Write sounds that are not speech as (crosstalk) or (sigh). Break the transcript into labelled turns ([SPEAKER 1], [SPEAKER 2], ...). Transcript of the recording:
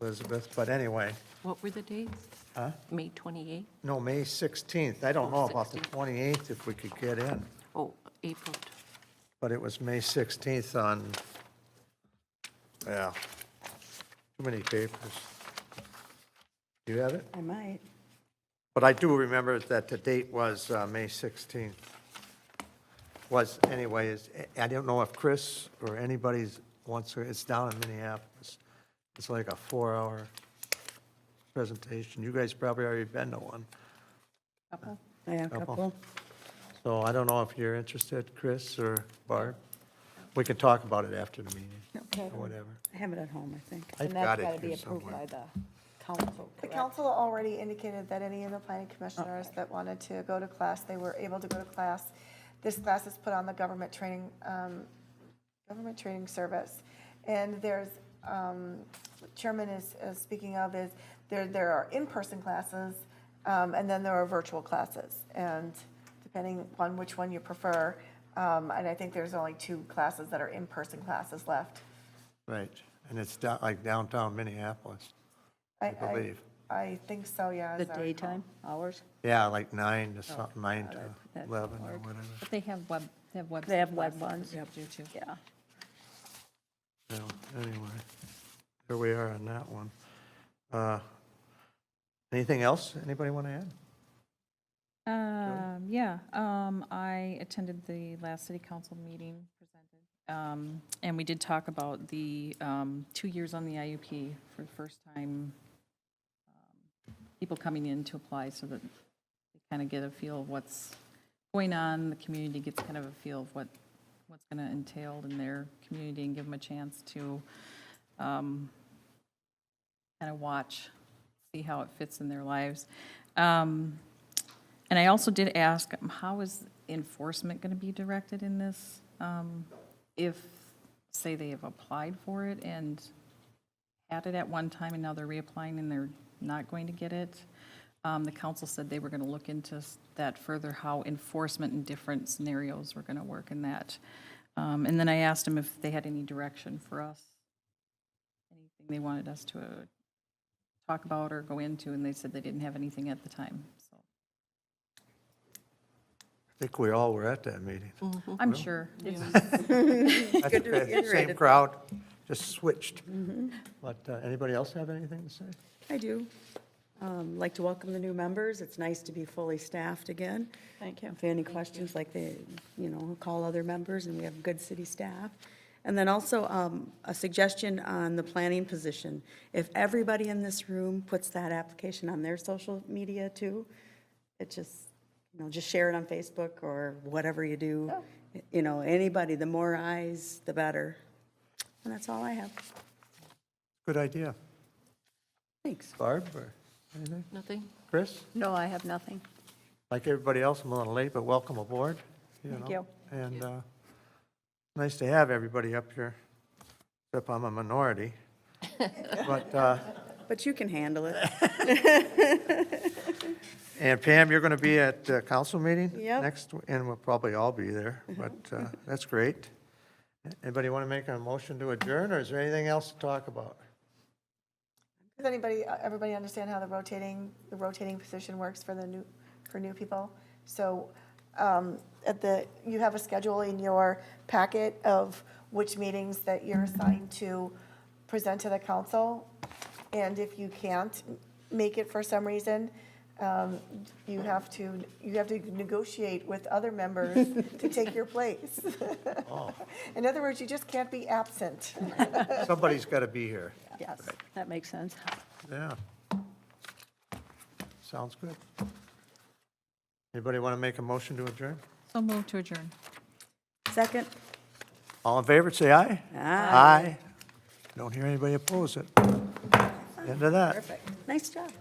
[SPEAKER 1] Elizabeth, but anyway,
[SPEAKER 2] What were the dates?
[SPEAKER 1] Huh?
[SPEAKER 2] May 28th?
[SPEAKER 1] no, May 16th. I don't know about the
[SPEAKER 2] 16th.
[SPEAKER 1] 28th if we could get in,
[SPEAKER 2] Oh, April. t-
[SPEAKER 1] but it was May 16th on, yeah, too many papers. Do you have it?
[SPEAKER 3] I might.
[SPEAKER 1] But I do remember that the date was uh, May 16th. Was anyways, I don't know if Chris or anybody's, once, it's down in Minneapolis. It's like a four-hour presentation. You guys probably already been to one.
[SPEAKER 2] Couple?
[SPEAKER 3] I have a
[SPEAKER 1] Couple.
[SPEAKER 3] couple.
[SPEAKER 1] So I don't know if you're interested, Chris or Barb. We can talk about it after the meeting,
[SPEAKER 3] Okay.
[SPEAKER 1] or whatever.
[SPEAKER 3] I have it at home, I think.
[SPEAKER 1] I've
[SPEAKER 4] And that's
[SPEAKER 1] got
[SPEAKER 4] got to
[SPEAKER 1] it
[SPEAKER 4] be
[SPEAKER 1] here
[SPEAKER 4] approved by
[SPEAKER 1] somewhere.
[SPEAKER 4] the council,
[SPEAKER 5] The
[SPEAKER 4] correct?
[SPEAKER 5] council already indicated that any of the planning commissioners that wanted to go to class, they were able to go to class. This class is put on the government training, um, government training service. And there's, um, Chairman is, is speaking of is, there, there are in-person classes, um, and then there are virtual classes. And depending on which one you prefer, um, and I think there's only two classes that are in-person classes left.
[SPEAKER 1] Right, and it's down- like downtown Minneapolis.
[SPEAKER 5] I
[SPEAKER 1] believe.
[SPEAKER 5] I think so, yeah.
[SPEAKER 3] The
[SPEAKER 5] as I recall.
[SPEAKER 3] daytime hours?
[SPEAKER 1] Yeah, like nine to something, nine
[SPEAKER 3] that-
[SPEAKER 1] to
[SPEAKER 3] Oh, that's
[SPEAKER 1] 11 or
[SPEAKER 3] hard.
[SPEAKER 1] whatever.
[SPEAKER 6] But they have web, they have web.
[SPEAKER 3] They have web ones.
[SPEAKER 6] classes that you do too.
[SPEAKER 3] Yeah.
[SPEAKER 1] So, anyway, there we are on that one. Uh, Anything else anybody want to add?
[SPEAKER 6] Um, yeah, um, I attended the last city council meeting presented. Um, and we did talk about the, um, two years on the IUP for the first time. um, People coming in to apply so that they kind of get a feel of what's going on, the community gets kind of a feel of what, what's going to entail in their community and give them a chance to, um, kind of watch, see how it fits in their lives. Um, and I also did ask, um, how is enforcement going to be directed in this? Um, If, say, they have applied for it and had it at one time, and now they're reapplying and they're not going to get it? Um, The council said they were going to look into s- that further, how enforcement in different scenarios were going to work in that. Um, And then I asked them if they had any direction for us, anything they wanted us to uh, talk about or go into, and they said they didn't have anything at the time, so.
[SPEAKER 1] I think we all were at that meeting.
[SPEAKER 3] Mm-hmm.
[SPEAKER 6] I'm sure.
[SPEAKER 1] I think that Same crowd, just switched.
[SPEAKER 3] Mm-hmm.
[SPEAKER 1] But uh, anybody else have anything to say?
[SPEAKER 3] I do. Um, Like to welcome the new members. It's nice to be fully staffed again. Thank you. If any questions, like they, you know, call other members, and we have good city staff. And then also um, a suggestion on the planning position. If everybody in this room puts that application on their social media too, it just, you know, just share it on Facebook or whatever you do. You know, anybody, the more eyes, the better. And that's all I have.
[SPEAKER 1] Good idea.
[SPEAKER 3] Thanks.
[SPEAKER 1] Barb, or anything?
[SPEAKER 2] Nothing?
[SPEAKER 1] Chris?
[SPEAKER 3] No, I have nothing.
[SPEAKER 1] Like everybody else, I'm a little late, but welcome aboard. Thank
[SPEAKER 3] you.
[SPEAKER 1] And uh, nice to have everybody up here, except I'm a minority. But uh,
[SPEAKER 3] But you can handle (laughs) it.
[SPEAKER 1] And Pam, you're going to be at the council meeting?
[SPEAKER 3] Yep. Mm-hmm.
[SPEAKER 1] Next, and we'll probably all be there, but uh, that's great. Anybody want to make a motion to adjourn, or is there anything else to talk about?
[SPEAKER 5] Does anybody, uh, everybody understand how the rotating, the rotating position works for the new, for new people? So um, at the, you have a schedule in your packet of which meetings that you're assigned to present to the council. And if you can't make it for some reason, um, you have to, you have to negotiate with other members to take your place. (laughs) In other words, you just can't be absent.
[SPEAKER 1] Somebody's got to be here.
[SPEAKER 3] Yes, that makes sense.
[SPEAKER 1] Yeah. Sounds good. Anybody want to make a motion to adjourn?
[SPEAKER 6] (laughs) So move to adjourn.
[SPEAKER 3] Second?
[SPEAKER 1] All in favor, say aye. Aye. Don't hear anybody oppose it. End of that.
[SPEAKER 3] Nice job.